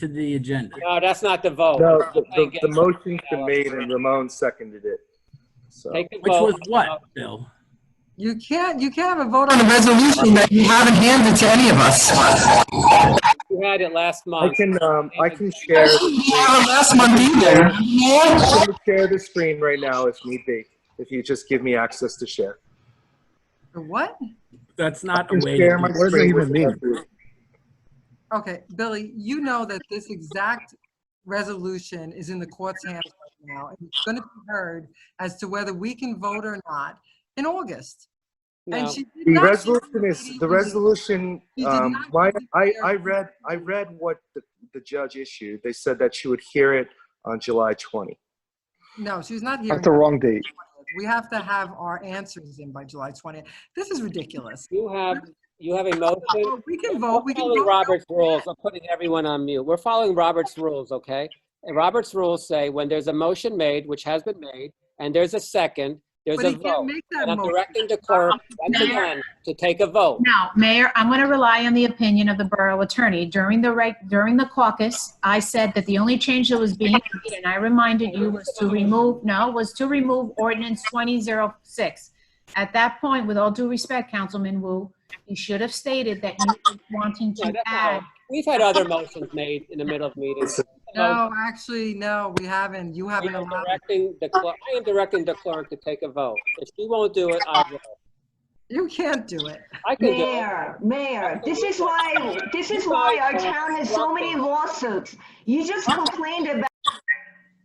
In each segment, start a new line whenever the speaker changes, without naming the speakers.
to the agenda.
No, that's not the vote.
No, the,
I
the,
guess-
the motion's been made and Ramon seconded it. So,
Take the
Which was
vote. Uh,
what, Bill?
You can't, you can't have a vote on a resolution that you haven't handed to any of us.
You had it last
I
month.
can, um, I can share,
You have it last month either.
I can share the screen right now if need be, if you just give me access to share.
What?
That's not
I
a
can
way.
share my
to do it.
screen with everyone.
Okay, Billy, you know that this exact resolution is in the court's hands right now. and It's going to be heard as to whether we can vote or not in August. And
No.
she did
The
not-
resolution is, the resolution,
He did
um,
not
my, I,
declare-
I read, I read what the, the judge issued. They said that she would hear it on July 20.
No, she's not here.
That's the wrong date.
We have to have our answers in by July 20th. This is ridiculous.
You have, you have a motion.
We can vote, we
We're
can
following
vote.
Robert's rules. I'm putting everyone on mute. We're following Robert's rules, okay? And Robert's rules say when there's a motion made, which has been made, and there's a second, there's
But
a
he can't
vote.
make that
And I'm
motion.
directing the clerk once again to take a vote.
Now, Mayor, I'm going to rely on the opinion of the borough attorney. During the reg, during the caucus, I said that the only change that was being made, and I reminded you, was to remove, no, was to remove ordinance 2006. At that point, with all due respect, Councilman Wu, you should have stated that you were wanting
No,
to
that's all.
add.
We've had other motions made in the middle of meetings.
No, actually, no, we haven't. You
We
haven't
are
allowed.
directing the clerk, I am directing the clerk to take a vote. If she won't do it, I will.
You can't do it.
I can do it.
Mayor, mayor, this is why, this is why our town has so many lawsuits. You just complained about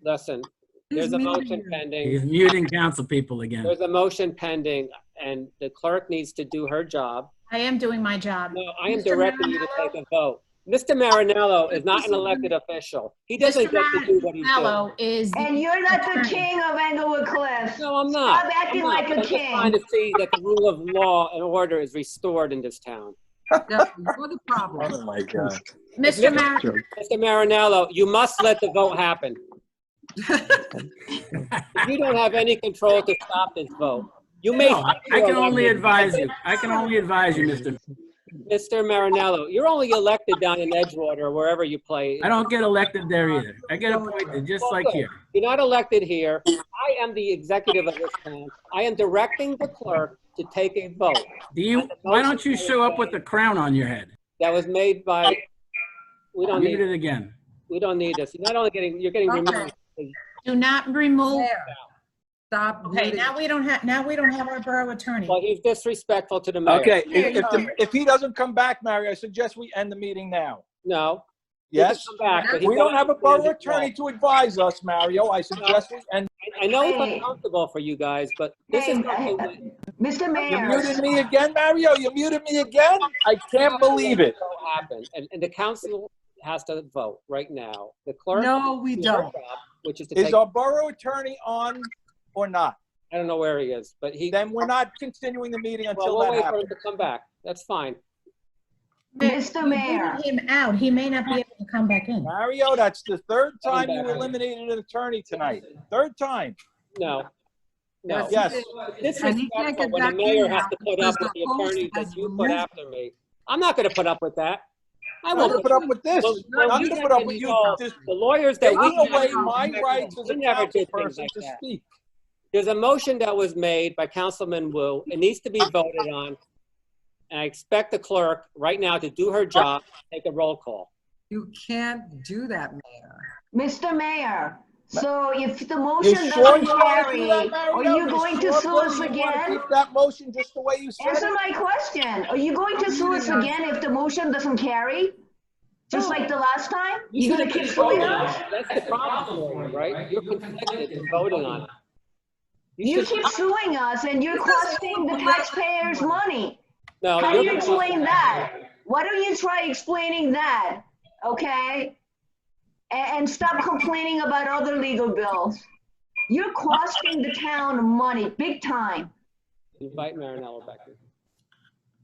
Listen,
He's
there's a motion
mean.
pending.
He's muting council people again.
There's a motion pending, and the clerk needs to do her job.
I am doing my job.
No, I am
Mr.
directing you to take a vote. Mr. Marinello is not an elected official. He doesn't
Mr.
get to do what he does.
Mello is,
And
the-
you're not the
Attorney.
king of Englewood Cliffs.
No, I'm not.
Stop acting
I'm not.
like a
I'm just
king.
trying to see that the rule of law and order is restored in this town.
Yeah, You're the problem.
Oh my God.
Mr. Mar,
Mr. Marinello, you must let the vote happen. You don't have any control to stop this vote. You may.
No, I I can only
You're
advise
elected.
you. I can only advise you, Mr.
Mr. Marinello, you're only elected down in Edgewater, or wherever you play.
I don't get elected there either. I get appointed, just like here.
You're not elected here. I am the executive of this town. I am directing the clerk to take a vote
Do you, why don't you show up with a crown on your head?
that was made by, we don't
Mute
need,
it again.
we don't need this. You're not only getting, you're getting removed.
do not remove.
There. Oh, Stop.
Okay,
muting.
now we don't have, now we don't have our borough attorney.
Well, he's disrespectful to the mayor.
Okay, if, if, the- if he doesn't come back, Mario, I suggest we end the meeting now.
No. he can
Yes?
come back, but he's
We don't
not-
have a borough attorney to advise us, Mario. I suggest we end.
I- I know it's uncomfortable for you guys, but this is not the way.
Mr.
You
Mayor.
muted me again, Mario? You muted me again? I can't believe it.
What happened, and, and the council has to vote right now. The clerk.
No, we
does her
don't.
job, Which is to
Is
take,
our borough attorney on or not?
I don't know where he is, but he,
Then we're not continuing the meeting
well,
until
we'll
that
wait for him
happens.
to come back. That's fine.
Mr.
You
Mayor.
voted Him out, he may not be able to come back in.
Mario, that's the third time you
back.
eliminated an attorney tonight. Third time.
No. No.
Yes.
This
And he can't
disrespectful
get
when the
back in
mayor
now
has to put
because
up with the
the host
attorney that
has
you put
removed-
after me. I'm not gonna put up with that. I
I'm gonna
won't.
put up with this.
Well,
I'm
you
gonna put up
can
with you
call
dis-
The lawyers that we.
taking away
never-
my rights as
We
a
never do
council
things
person
like
to
that.
speak.
There's a motion that was made by Councilman Wu. It needs to be voted on. And I expect the clerk right now to do her job, take a roll call.
You can't do that, Mayor.
Mr. Mayor, so if the motion
sure
doesn't
you wanna do
carry,
that,
are
Mario?
you going to
sure
sue us
you wanna
again?
keep That motion just the way you said
Answer
it?
my question. Are you going to sue us again if the motion doesn't carry? Just like the last time? You gonna keep suing us?
That's the problem, right? You're conflicted in voting on it.
You
should-
keep suing us and you're costing the taxpayers money.
No,
How do
you're-
you explain that? Why don't you try explaining that, okay? And, and stop complaining about other legal bills. You're costing the town money, big time.
Invite Marinello back.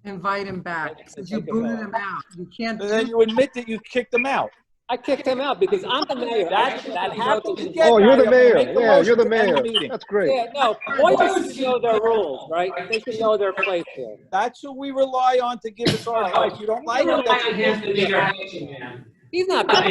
in.
Invite him back. because You booted him out. You can't
And then
do
you admit that you kicked them out.
I kicked him out because I'm the mayor.
That,
I-
that happens again.
Oh, you're the
Mario.
mayor.
Make the
Yeah, you're the
motion to
mayor.
end meeting.
That's great.
Yeah, no, lawyers should know their rules, right? They should know their place here.
That's who we rely on to give us our advice. You don't like it? that's what you
He's not.